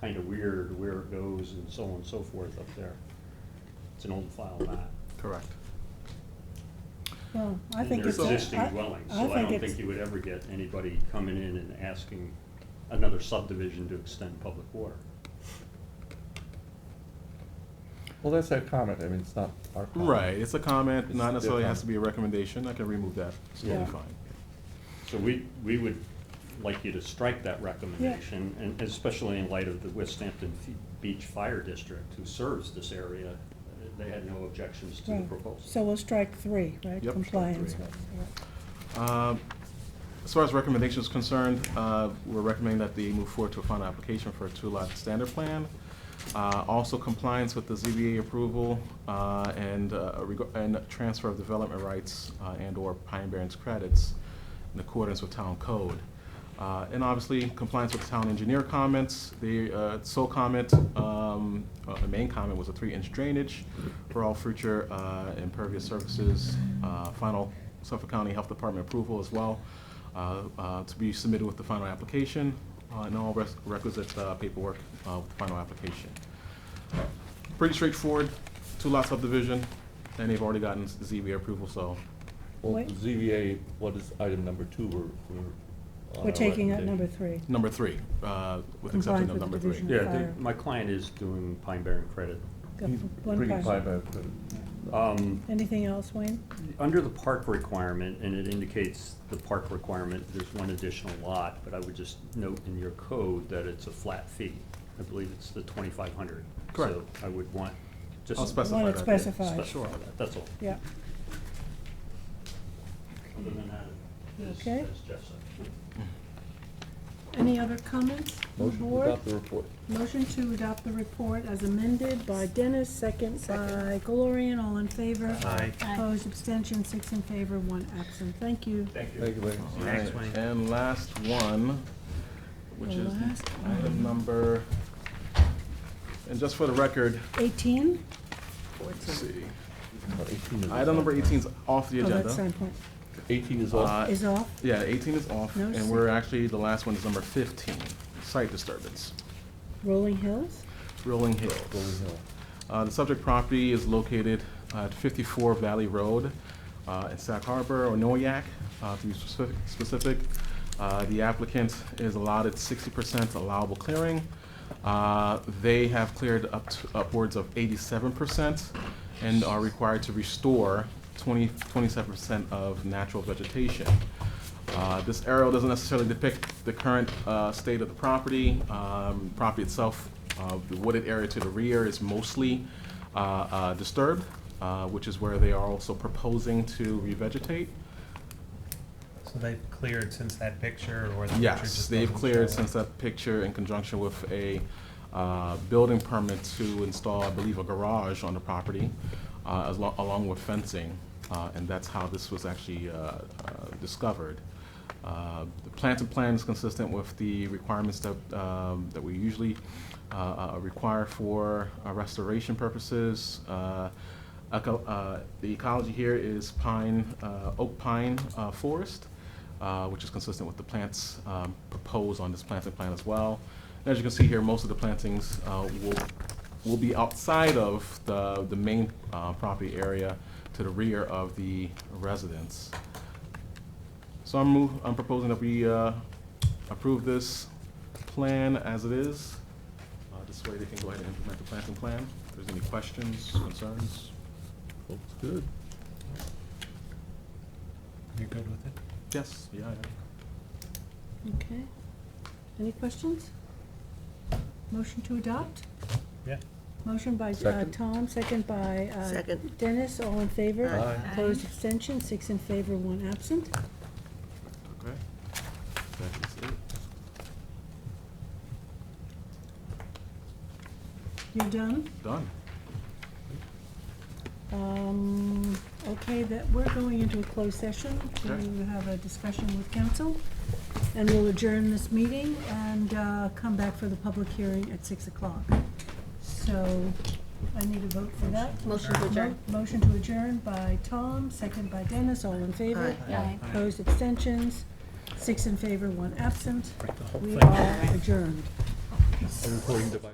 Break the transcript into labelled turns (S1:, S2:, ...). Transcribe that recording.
S1: kind of weird where it goes and so on and so forth up there. It's an old file map.
S2: Correct.
S3: Well, I
S1: And
S3: think
S1: they're
S3: it's.
S1: Existing
S3: I-
S1: dwellings,
S3: I
S1: so I don't
S3: it's-
S1: think you would ever get anybody coming in and asking another subdivision to extend public water.
S4: Well, that's our comment, I mean, it's not our comment.
S2: Right, it's a comment,
S4: It's
S2: not
S4: their
S2: necessarily has
S4: comment.
S2: to be a recommendation, I can remove that, it's totally
S3: Yeah.
S2: fine.
S1: So we, we would like you to strike that recommendation, and especially in light of the West Hampton Fe- Beach Fire District, who serves this area, uh, they had no objections to the
S3: right. So
S1: proposal.
S3: we'll strike three, right?
S2: Yep, strike
S3: Compliance
S2: three.
S3: with, yeah.
S2: Um, As far as recommendations concerned, uh, we're recommending that they move forward to a final application for a two-lot standard plan. Uh, Also compliance with the ZBA approval uh, and, uh, reg- and transfer of development rights uh, and/or Pine Barrens credits in accordance with town code. Uh, And obviously, compliance with town engineer comments, the uh, sole comment, um, uh, the main comment was a three-inch drainage for all future uh, impervious surfaces, uh, final Suffolk County Health Department approval as well, uh, uh, to be submitted with the final application, uh, and all res- requisite uh, paperwork uh, with the final application. Pretty straightforward, two-lot subdivision, and they've already gotten ZBA approval, so
S4: Well,
S3: Wait.
S4: the ZBA, what is item number two, we're, we're.
S3: We're
S4: on our
S3: taking out
S4: recommendation.
S3: number three.
S2: Number three, uh, with exception
S3: Compliance with
S2: of
S3: the
S2: number three.
S3: division.
S1: Yeah, the-
S3: Fire.
S1: my client is doing Pine Barren Credit.
S3: Got
S4: He's
S3: one
S4: bringing
S3: part.
S4: five out, but-
S1: Um,
S3: Anything else, Wayne?
S1: Under the park requirement, and it indicates the park requirement, there's one additional lot, but I would just note in your code that it's a flat fee. I believe it's the twenty-five hundred.
S2: Correct.
S1: So I would want, just.
S2: I'll specify
S3: Wanna
S2: that. yeah.
S3: specify.
S1: Specify that, that's all.
S3: Yeah,
S1: Other than that, it's,
S3: Okay.
S1: as Jeff said.
S5: Any other comments? from the
S4: Motion to
S5: board?
S4: adopt the report.
S5: Motion to adopt the report as amended by Dennis, second by Gloria, all in favor.
S6: Aye.
S5: Opposed, abstention, six in favor, one absent. Thank you.
S1: Thank you.
S4: Thank you, ladies.
S2: All
S6: Next
S2: right,
S6: one.
S2: And last one, which
S5: The
S2: is
S5: last
S2: item number, and just for the record,
S5: Eighteen?
S2: let's see.
S4: Well, 18 is
S2: Item number
S4: off.
S2: eighteen is off the
S3: oh, that's
S2: agenda.
S3: sign point,
S4: Eighteen is off.
S2: Uh,
S3: is off,
S2: Yeah, eighteen is off,
S3: No,
S2: and
S3: sir.
S2: we're actually, the last one is number fifteen, site disturbance,
S3: Rolling Hills?
S2: Rolling Hills.
S4: Rolling Hill.
S2: Uh, The subject property is located at 54 Valley Road uh, in Sac Harbor, or Noyak, uh, to be specific- specific. Uh, The applicant is allotted 60% allowable clearing. Uh, They have cleared up to- upwards of 87% and are required to restore 20 27% of natural vegetation. Uh, This aerial doesn't necessarily depict the current uh, state of the property. Um, Property itself, uh, the wooded area to the rear is mostly uh, uh, disturbed, uh, which is where they are also proposing to revegetate.
S6: So they've cleared since that picture or the picture
S2: Yes,
S6: just
S2: they've
S6: doesn't
S2: cleared
S6: show
S2: since that picture in conjunction with a uh, building permit to install, I believe, a garage on the property, uh, as lo- along with fencing, uh, and that's how this was actually uh, uh, discovered. Uh, The planting plan is consistent with the requirements that um, that we usually uh, uh, require for uh, restoration purposes. Uh, eco- uh, The ecology here is pine, uh, oak pine uh, forest uh, which is consistent with the plants um, proposed on this planting plan as well. And As you can see here, most of the plantings uh, will, will be outside of the, the main uh, property area to the rear of the residence. So I'm move, I'm proposing that we uh, approve this plan as it is. Uh, This way they can go ahead and implement the planting plan. If there's any questions, concerns?
S4: Looks good.
S6: You're good with it?
S2: Yes, yeah, yeah.
S5: Okay. Any questions? Motion to adopt?
S6: Yeah.
S5: Motion by uh,
S4: Second.
S5: Tom, second by uh,
S7: Second.
S5: Dennis, all in favor.
S4: Aye.
S5: Opposed, abstention, six in favor, one absent.
S2: Okay. That is it.
S5: You're done?
S2: Done.
S5: Um, okay, that, we're going into a closed session
S2: Okay.
S5: to have a discussion with council. And we'll adjourn this meeting and, uh, come back for the public hearing at six o'clock. So, I need a vote for that.
S7: Motion to adjourn.
S5: Mo- Motion to adjourn by Tom, second by Dennis, all in favor.
S7: Aye. Aye.
S5: Opposed, abstentions, six in favor, one absent.
S6: Break the whole
S5: We
S6: thing.
S5: are adjourned.
S4: a recording device.